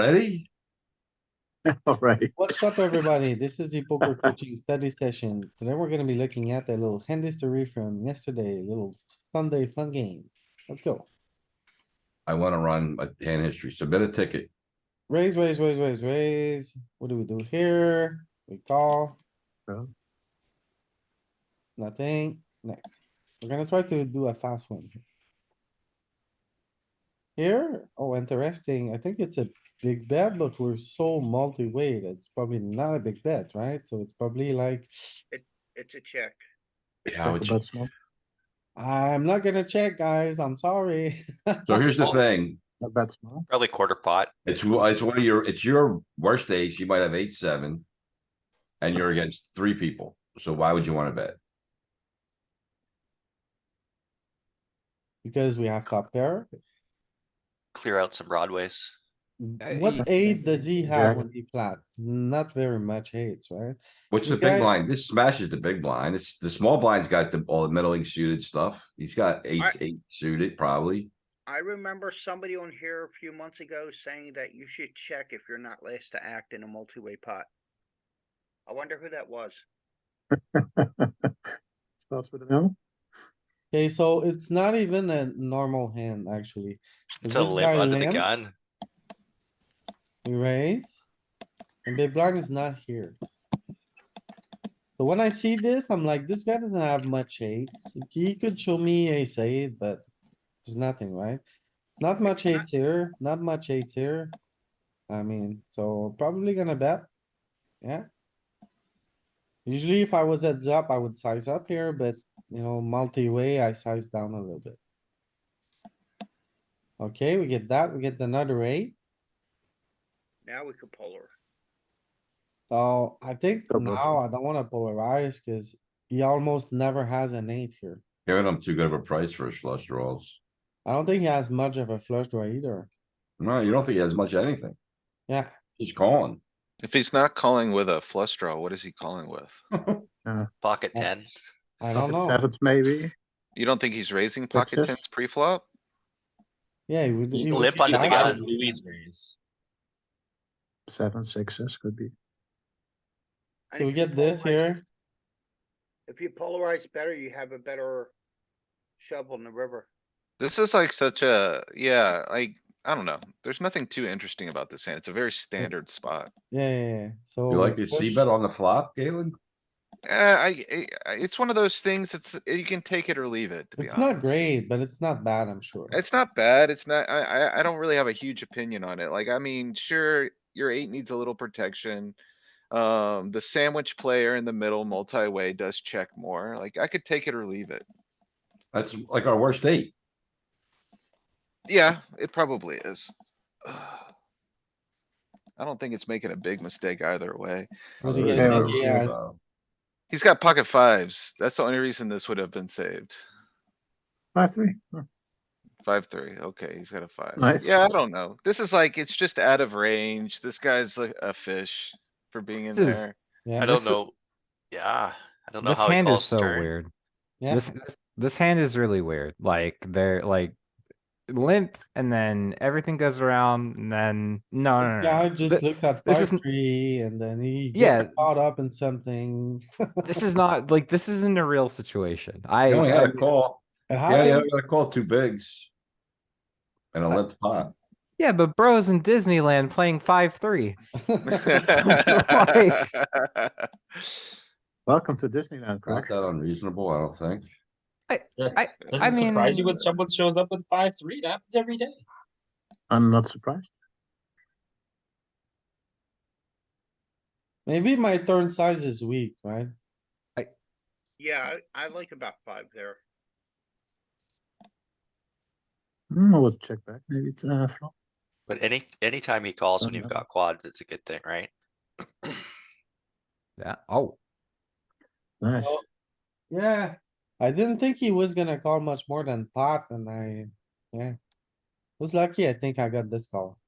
Ready? Alright, What's up, everybody? This is the poker coaching study session. Today, we're gonna be looking at a little hand history from yesterday, a little Sunday fun game. Let's go. I wanna run a hand history, submit a ticket. Raise, raise, raise, raise, raise. What do we do here? We call. No. Nothing. Next. We're gonna try to do a fast one. here. Here, oh, interesting. I think it's a big bet, but we're so multi-way that it's probably not a big bet, right? So it's probably like, It's a check. Yeah, I talk would- about small. I'm not gonna check, guys. I'm sorry. So here's the thing, Not bad small. Probably quarter pot. it's, w- it's one of your, it's your worst ace, you might have eight, seven. And you're against three people, so why would you wanna bet? Because we have top pair. Clear out some broadways. What aid does he have Jack. when he flats? Not very much aids, right? What's the This guy- big blind? This smashes the big blind, it's, the small blind's got the, all the middling suited stuff, he's got ace, eight suited probably. I remember somebody on here a few months ago saying that you should check if you're not last to act in a multi-way pot. I wonder who that was. Starts with an L. Okay, so it's not even a normal hand, actually. Is It's a this limp guy under the limp? gun. We raise. And big blind is not here. So when I see this, I'm like, this guy doesn't have much aids. He could show me ace eight, but there's nothing, right? Not much not- eight here, not much eight here. I mean, so probably gonna bet. Yeah. Usually if I was heads up, I would size up here, but you know, multi-way, I size down a little bit. Okay, we get that. We get another eight. Now we could polar. So I think Go Brooks. now I don't wanna polarize cuz he almost never has an eight here. Giving them too good of a price for his flush draws. I don't think he has much of a flush draw either. No, you don't think he has much of anything, Yeah, he's calling. If he's not calling with a flush draw, what is he calling with? Pocket Yeah. tens. I don't Pocket know. Sevens maybe, You don't think he's raising pocket Sixes? tens pre-flop? Yeah, he would. he would Limp do under the that. gun. seven, sixes could be. So And we if you get this polarize- here. If you polarize better, you have a better shovel in the river. This is like such a, yeah, like, I don't know. There's nothing too interesting about this hand. It's a very standard spot. Yeah, yeah, yeah. So. You like your C Oh, push- bet on the flop, Galen? Uh, I, I- I- it's one of those things that's, eh, you can take it or leave it, to be It's not honest. great, but it's not bad, I'm sure. It's not bad. It's not, I, I, I don't really have a huge opinion on it. Like, I mean, sure, your eight needs a little protection. Um, the sandwich player in the middle multi-way does check more. Like, I could take it or leave it. That's like our worst eight. Yeah, it probably is. I don't think it's making a big mistake either way. What do There you is guys no think? rule, Yeah. though. He's got pocket fives. That's the only reason this would have been saved. Five, three, Oh, Five, three. Okay, he's got a five. Nice. Yeah, I don't know. This is like, it's just out of range. This guy's like a fish for being in This is- there. Yeah, I don't know. Yeah, I don't know This how he hand is calls so turn. weird. yeah. This, this this hand is really weird. Like they're like limp, and then everything goes around, and then no, no, no, This no. guy just Th- looks at this five, isn't- three, and then he gets Yeah. caught up in something. this is not like this isn't a real situation. I, He only had I a call, And how yeah, he did- only had a call two bigs. And a limp pot. yeah, but bros in Disneyland playing five three. welcome to Disneyland, Not crack. that unreasonable, I don't think. I Doesn't surprise you mean- when someone shows up with five three. That happens every day. I'm not surprised. Maybe my turn size is weak, right? Yeah, I I like about five there. Hmm, I would check back, maybe it's uh flop. But any, anytime he calls when you've Uh-huh. got quads, it's a good thing, right? Yeah. Oh, Nice. Oh. Yeah, I didn't think he was gonna call much more than pot and I, yeah. Was lucky, I think I got this call.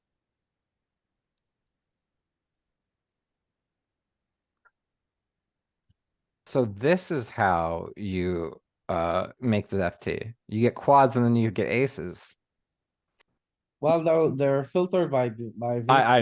so this is how you uh make the FT. You get quads, and then you get aces. Well, no, they're filtered by, by. I, I